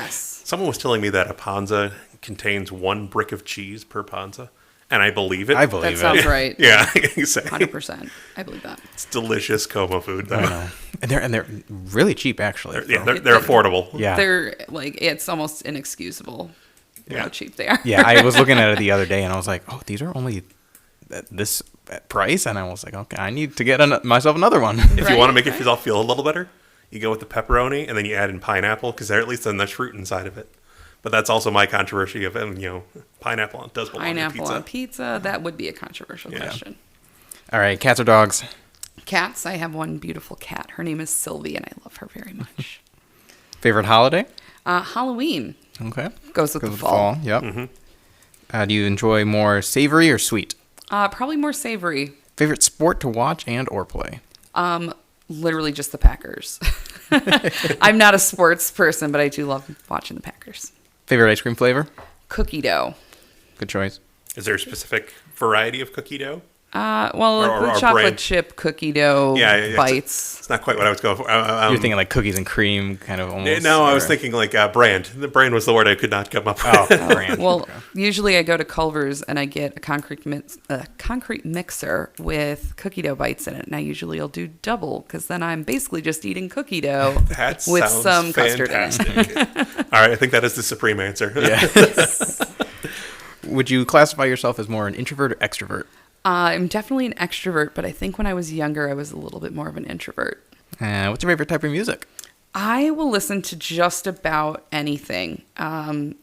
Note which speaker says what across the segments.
Speaker 1: Yes.
Speaker 2: Someone was telling me that a panza contains one brick of cheese per panza, and I believe it.
Speaker 3: I
Speaker 1: That
Speaker 3: believe it.
Speaker 1: sounds right.
Speaker 2: Yeah, exactly.
Speaker 1: 100%. I believe that.
Speaker 2: It's delicious coma food. Though.
Speaker 3: I know. And they're and they're really cheap actually.
Speaker 2: Yeah,
Speaker 3: so-
Speaker 2: they're, they're affordable.
Speaker 3: yeah.
Speaker 1: They're like, it's almost inexcusable
Speaker 2: Yeah.
Speaker 1: how cheap they are.
Speaker 3: yeah. I was looking at it the other day and I was like, oh, these are only at this price, and I was like, okay, I need to get an- myself another one.
Speaker 2: If
Speaker 1: Right,
Speaker 2: you want to make
Speaker 1: right.
Speaker 2: yourself feel a little better, you go with the pepperoni and then you add in pineapple because at least then there's fruit inside of it. But that's also my controversy of um, you know pineapple does belong in
Speaker 1: Pineapple
Speaker 2: pizza.
Speaker 1: on pizza. That would be a controversial
Speaker 2: Yeah.
Speaker 1: question.
Speaker 3: All right, cats or dogs?
Speaker 1: Cats. I have one beautiful cat. Her name is Sylvie, and I love her very much.
Speaker 3: Favorite holiday?
Speaker 1: Uh, Halloween
Speaker 3: Okay.
Speaker 1: goes with
Speaker 3: Goes
Speaker 1: the
Speaker 3: with
Speaker 1: fall.
Speaker 3: Yep.
Speaker 2: Mm-hmm.
Speaker 3: Uh, do you enjoy more savory or sweet?
Speaker 1: Uh, probably more savory.
Speaker 3: Favorite sport to watch and or play?
Speaker 1: Um, literally just the Packers. I'm not a sports person, but I do love watching the Packers.
Speaker 3: Favorite ice cream flavor?
Speaker 1: Cookie dough.
Speaker 3: Good choice.
Speaker 2: Is there a specific variety of cookie dough?
Speaker 1: Uh, well,
Speaker 2: Or- or-
Speaker 1: the
Speaker 2: or
Speaker 1: chocolate
Speaker 2: bread.
Speaker 1: chip cookie dough
Speaker 2: Yeah, yeah, yeah.
Speaker 1: bites.
Speaker 2: It's not quite what I was going for. Uh, um,
Speaker 3: You're thinking like cookies and cream, kind of
Speaker 2: eh,
Speaker 3: almost.
Speaker 2: no, I was
Speaker 3: or-
Speaker 2: thinking like uh, brand. The brand was the word I could not come up with.
Speaker 3: Oh, brand.
Speaker 1: Well,
Speaker 3: Okay.
Speaker 1: usually I go to Culver's and I get a concrete mix, a concrete mixer with cookie dough bites in it, and I usually will do double because then I'm basically just eating cookie dough
Speaker 2: That
Speaker 1: with
Speaker 2: sounds
Speaker 1: some custard in it.
Speaker 2: fantastic. All right, I think that is the supreme answer.
Speaker 3: would you classify yourself as more an introvert or extrovert?
Speaker 1: Uh, I'm definitely an extrovert, but I think when I was younger, I was a little bit more of an introvert.
Speaker 3: Uh, what's your favorite type of music?
Speaker 1: I will listen to just about anything, um,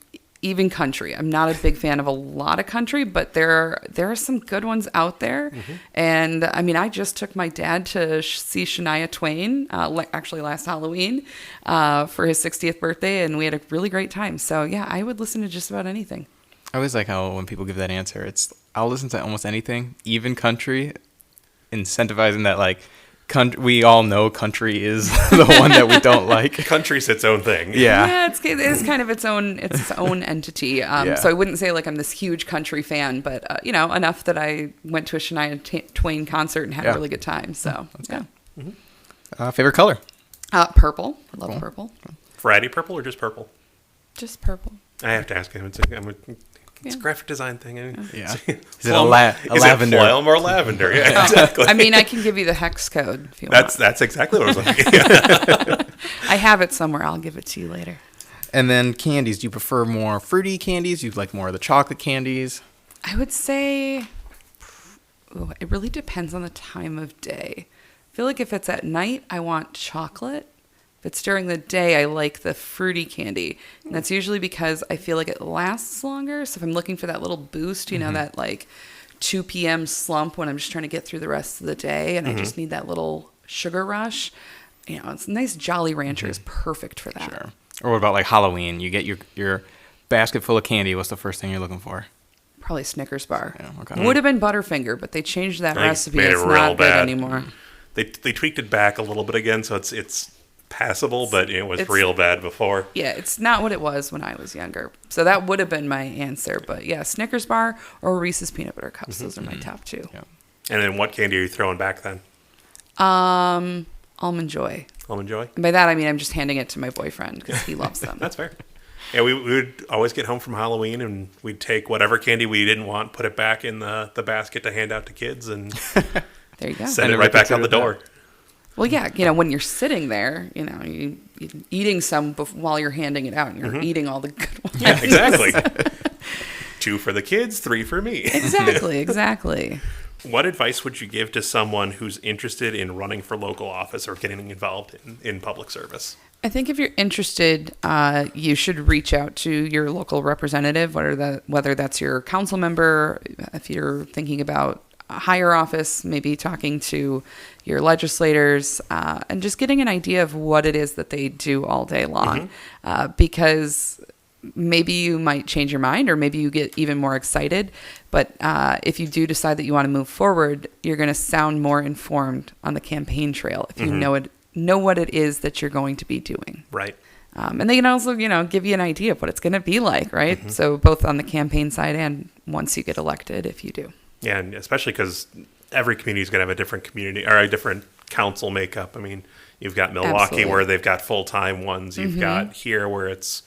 Speaker 1: even country. I'm not a big fan of a lot of country, but there are, there are some good ones out there. And I mean, I just took my dad to sh- see Shania Twain, uh, le- actually last Halloween, uh, for his 60th birthday, and we had a really great time. So yeah, I would listen to just about anything.
Speaker 3: I always like how when people give that answer, it's I'll listen to almost anything, even country, incentivizing that like, country, we all know country is the one that we don't like.
Speaker 2: Country's its own thing.
Speaker 3: Yeah.
Speaker 1: yeah, it's it is kind of its own it's its own entity. Um,
Speaker 3: Yeah.
Speaker 1: So I wouldn't say like I'm this huge country fan, but uh, you know enough that I went to a Shania T- Twain concert and had
Speaker 3: Yeah.
Speaker 1: a really good time. So yeah,
Speaker 3: Uh, favorite color?
Speaker 1: uh, purple. I love purple.
Speaker 2: Variety purple or just purple?
Speaker 1: Just purple.
Speaker 2: I have to ask him. It's a, I'm a, it's
Speaker 1: Yeah.
Speaker 2: a graphic design thing.
Speaker 3: Yeah. Is it a
Speaker 2: Flum-
Speaker 3: la- a
Speaker 2: is
Speaker 3: lavender?
Speaker 2: It phloem or lavender? Yeah, exactly.
Speaker 1: I mean, I can give you the hex code if you
Speaker 2: that's
Speaker 1: want.
Speaker 2: that's exactly what I was like. Yeah.
Speaker 1: I have it somewhere. I'll give it to you later.
Speaker 3: And then candies. Do you prefer more fruity candies? You like more of the chocolate candies?
Speaker 1: I would say ooh, it really depends on the time of day. I feel like if it's at night, I want chocolate. If it's during the day, I like the fruity candy. And that's usually because I feel like it lasts longer. So if I'm looking for that little boost, you
Speaker 2: Mm-hmm.
Speaker 1: know, that like 2 p.m. slump when I'm just trying to get through the rest of the day and I just
Speaker 2: Mm-hmm.
Speaker 1: need that little sugar rush, you know, it's nice Jolly Rancher is
Speaker 2: Mm-hmm.
Speaker 1: perfect for that.
Speaker 3: Sure. Or what about like Halloween? You get your your basket full of candy. What's the first thing you're looking for?
Speaker 1: Probably Snickers bar.
Speaker 3: Yeah, okay.
Speaker 1: Would have been Butterfinger, but they changed that
Speaker 2: They
Speaker 1: recipe.
Speaker 2: made it
Speaker 1: It's
Speaker 2: real
Speaker 1: not good
Speaker 2: bad.
Speaker 1: anymore.
Speaker 2: they they tweaked it back a little bit again, so it's it's passable, but it was
Speaker 1: It's-
Speaker 2: real bad before.
Speaker 1: Yeah, it's not what it was when I was younger. So that would have been my answer. But yeah, Snickers bar or Reese's peanut butter cups.
Speaker 2: Mm-hmm,
Speaker 1: Those are my top two.
Speaker 3: Yeah.
Speaker 2: And then what candy are you throwing back then?
Speaker 1: Um, almond joy.
Speaker 2: Almond Joy.
Speaker 1: And by that I mean I'm just handing it to my boyfriend because he loves them.
Speaker 2: That's fair. Yeah, we, we would always get home from Halloween and we'd take whatever candy we didn't want, put it back in the, the basket to hand out to kids, and
Speaker 1: There you go.
Speaker 2: send
Speaker 3: I
Speaker 2: it
Speaker 3: never
Speaker 2: right back out the
Speaker 3: considered
Speaker 2: door.
Speaker 3: that.
Speaker 1: Well, yeah, you know when you're sitting there, you know you you're eating some bef- while you're handing it out, and you're eating all the good ones.
Speaker 2: Mm-hmm. Yeah, exactly. Two for the kids, three for me.
Speaker 1: Exactly. Exactly.
Speaker 2: What advice would you give to someone who's interested in running for local office or getting involved in, in public service?
Speaker 1: I think if you're interested, uh, you should reach out to your local representative, whether that whether that's your council member, if you're thinking about a higher office, maybe talking to your legislators, uh, and just getting an idea of what it is that they do all day long, uh, because maybe you might change your mind or maybe you get even more excited but uh, if you do decide that you want to move forward you're going to sound more informed on the campaign trail if you know it know what it is that you're going to be doing
Speaker 2: Right.
Speaker 1: um, and they can also you know give you an idea of what it's going to be like right so both on the campaign side and once you get elected if you do
Speaker 2: Yeah, and especially because every community is going to have a different community or a different council makeup. I mean, you've got Milwaukee
Speaker 1: Absolutely.
Speaker 2: Mm-hmm. where they've got full time ones. You've got here where it's